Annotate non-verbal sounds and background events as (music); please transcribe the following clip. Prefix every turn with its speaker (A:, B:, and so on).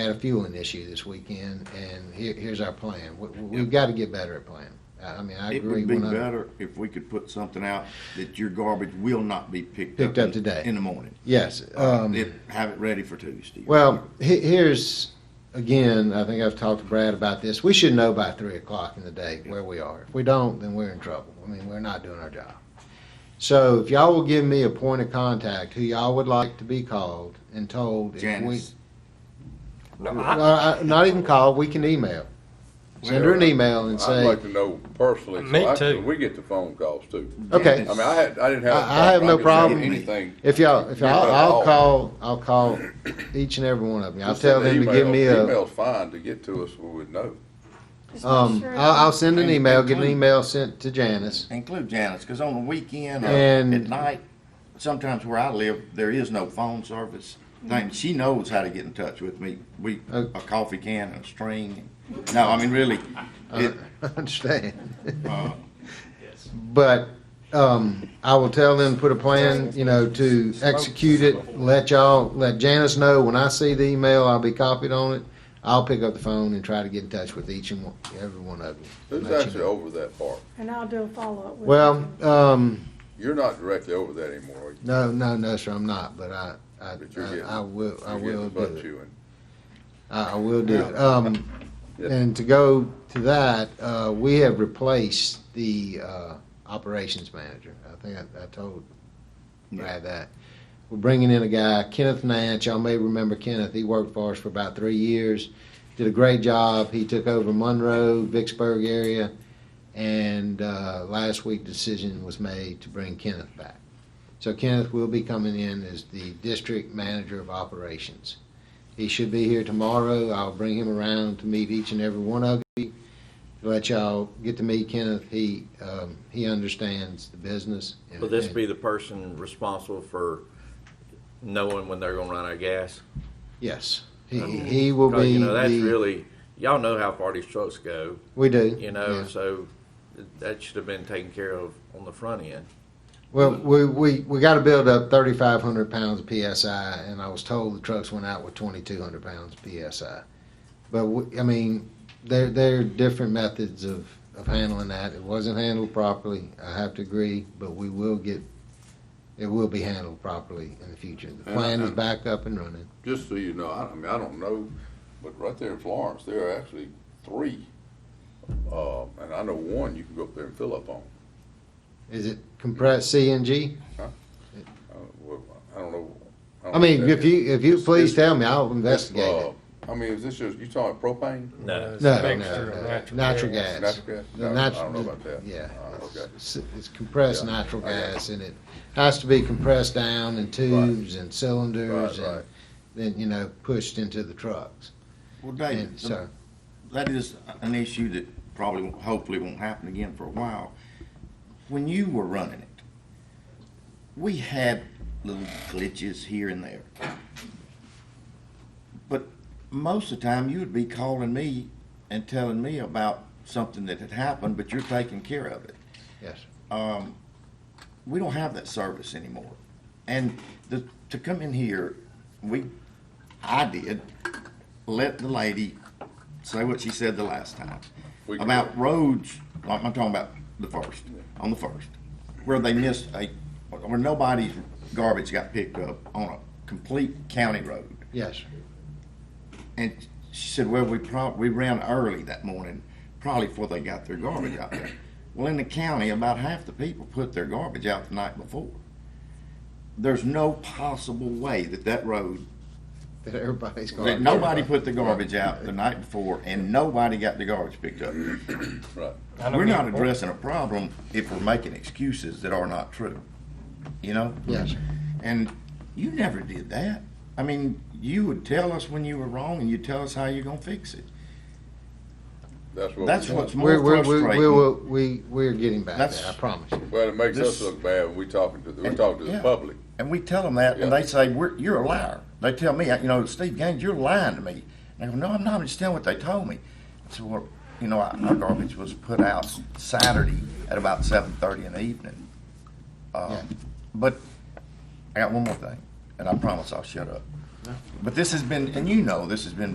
A: had a fueling issue this weekend, and here, here's our plan. We, we've got to get better at planning. I I mean, I
B: It
A: agree.
B: would be
A: 100
B: better if we could put something out that your garbage will not be picked up.
A: Picked up
B: in-
A: today.
B: In the morning.
A: Yes. Um,
B: If- Have it ready for Tuesday.
A: Well, he- here's, again, I think I've talked to Brad about this. We should know by three o'clock in the day where we are. If we don't, then we're in trouble. I mean, we're not doing our job. So if y'all will give me a point of contact, who y'all would like to be called and told if we.
B: Janice.
C: No, I-
A: Uh, uh, Not even called, we can email. Send her an email and
C: I'd
A: say,
C: like to know personally. so
D: Me
C: I-
D: too.
C: We get the phone calls too.
A: okay,
C: I mean, I had, I didn't have. a
A: I- I have no
C: could say
A: problem.
C: Anything.
A: if y'all, if y'all,
C: Yeah.
A: I'll call, I'll call each and every one of them. I'll tell them to give me a.
C: Email's fine to get to us, we would know.
E: Just make
A: Um,
E: sure-
A: I'll, I'll send an
B: And-
A: email,
B: and
A: get an
B: clean.
A: email sent to Janice. (laughs)
B: Include Janice, because on the weekend or
A: And-
B: at night, sometimes where I live, there is no phone service. Thing, she knows how to get in touch with me. We,
A: Oh.
B: a coffee can and a string. No, I mean, really,
A: I
B: it,
A: understand.
B: uh,
A: But, um, I will tell them, to put a plan, you know, to execute it, let y'all, let Janice know, when I see the email, I'll be copied on it. I'll pick up the phone and try to get in touch with each and one, every one of you.
C: Who's
A: Let you
C: actually
A: know.
C: over that part?
E: And I'll do a follow-up with
A: Well,
E: you.
A: um,
C: You're not directly over that anymore, are you?
A: no, no, no, sir, I'm not, but I, I,
C: But you're
A: I-
C: getting-
A: I will, I
C: You're getting
A: will
C: the
A: do
C: butt
A: it.
C: chewing.
A: I I will do it. Um,
C: (laughs) Yeah.
A: and to go to that, uh, we have replaced the, uh, operations manager. I think I, I told Brad that. We're bringing in a guy, Kenneth Nance. Y'all may remember Kenneth. He worked for us for about three years. Did a great job. He took over Monroe, Vicksburg area. And, uh, last week decision was made to bring Kenneth back. So Kenneth will be coming in as the district manager of operations. He should be here tomorrow. I'll bring him around to meet each and every one of you. to Let y'all get to meet Kenneth. He, um, he understands the business. and-
F: Will this be the person responsible for knowing when they're gonna run out of gas?
A: Yes. He, he will
F: Because,
A: be
F: you know, that's
A: the-
F: really, y'all know how far these trucks go,
A: we do.
F: you know,
A: yeah.
F: so that should have been taken care of on the front end.
A: Well, we, we, we got to build up 3,500 pounds of PSI, and I was told the trucks went out with 2,200 pounds of PSI. But, we, I mean, there, there are different methods of, of handling that. It wasn't handled properly, I have to agree, but we will get, it will be handled properly in the future. The
C: And I-
A: plan is
C: and-
A: back up and running.
C: Just so you know, I, I mean, I don't know, but right there in Florence, there are actually three. Uh, and I know one you can go up there and fill up on.
A: Is it compressed CNG?
C: Uh, well, I don't know. don't
F: Oh,
A: I mean,
C: know that
A: if you, if you
C: It's-
A: please
C: it's-
A: tell me, I'll
C: it's,
A: investigate it.
C: uh, I mean, is this just, you talking propane?
F: No.
A: No, no,
D: Mixture of
A: no,
D: natural
A: natural
D: gas.
A: gas.
C: Natural gas?
A: The
C: No, I
A: nat-
C: don't know about that.
A: Yeah.
C: Uh, okay.
A: It's- It's compressed
C: Yeah.
A: natural
C: I got
A: gas and it has to be compressed down in tubes and cylinders
C: Right,
A: and
C: right.
A: then, you know, pushed into the trucks.
B: well, David,
A: And
B: the
A: so,
B: that is an issue that probably, won't- hopefully won't happen again for a while. When you were running it, we had little glitches here and there. But most of the time, you would be calling me and telling me about something that had happened, but you're taking care of it
A: yes.
B: um, we don't have that service anymore. And the, to come in here, we, I did, let the lady say what she said the last time
C: We-
B: about roads. Like I'm talking about the first, on the first, where they missed a, where nobody's garbage got picked up on a complete county road.
A: Yes. (laughs)
B: And she said, well, we prob, we ran early that morning, probably before they got their garbage out there. Well, in the county, about half the people put their garbage out the night before. There's no possible way that that road,
A: That everybody's
B: that
A: going.
B: nobody put the garbage out the night before and nobody got the garbage picked up.
C: Right.
D: I know
B: We're not
D: people-
B: addressing a problem if we're making excuses that are not true, you know?
A: Yes.
B: And you never did that. I mean, you would tell us when you were wrong and you'd tell us how you're gonna fix it.
C: That's what.
B: That's
C: we want.
B: what's more
A: We're, we're, we're,
B: frustrating.
A: we're, we, we're getting back
B: That's-
A: there, I promise you.
C: Well, it makes us
B: This-
C: look bad when we talking to, the we talking to the
B: Yeah.
C: public.
B: and we tell them that, and
C: Yeah.
B: they say, we're, "You're a liar." They tell me, you know, Steve Gaines, you're lying to me. And I go, "No, I'm not. I'm just telling what they told me." I said, "Well, you know, our our garbage was put out Saturday at about 7:30 in the evening." Um,
A: Yeah.
B: But I got one more thing, and I promise I'll shut up. But this has been, and you know, this has been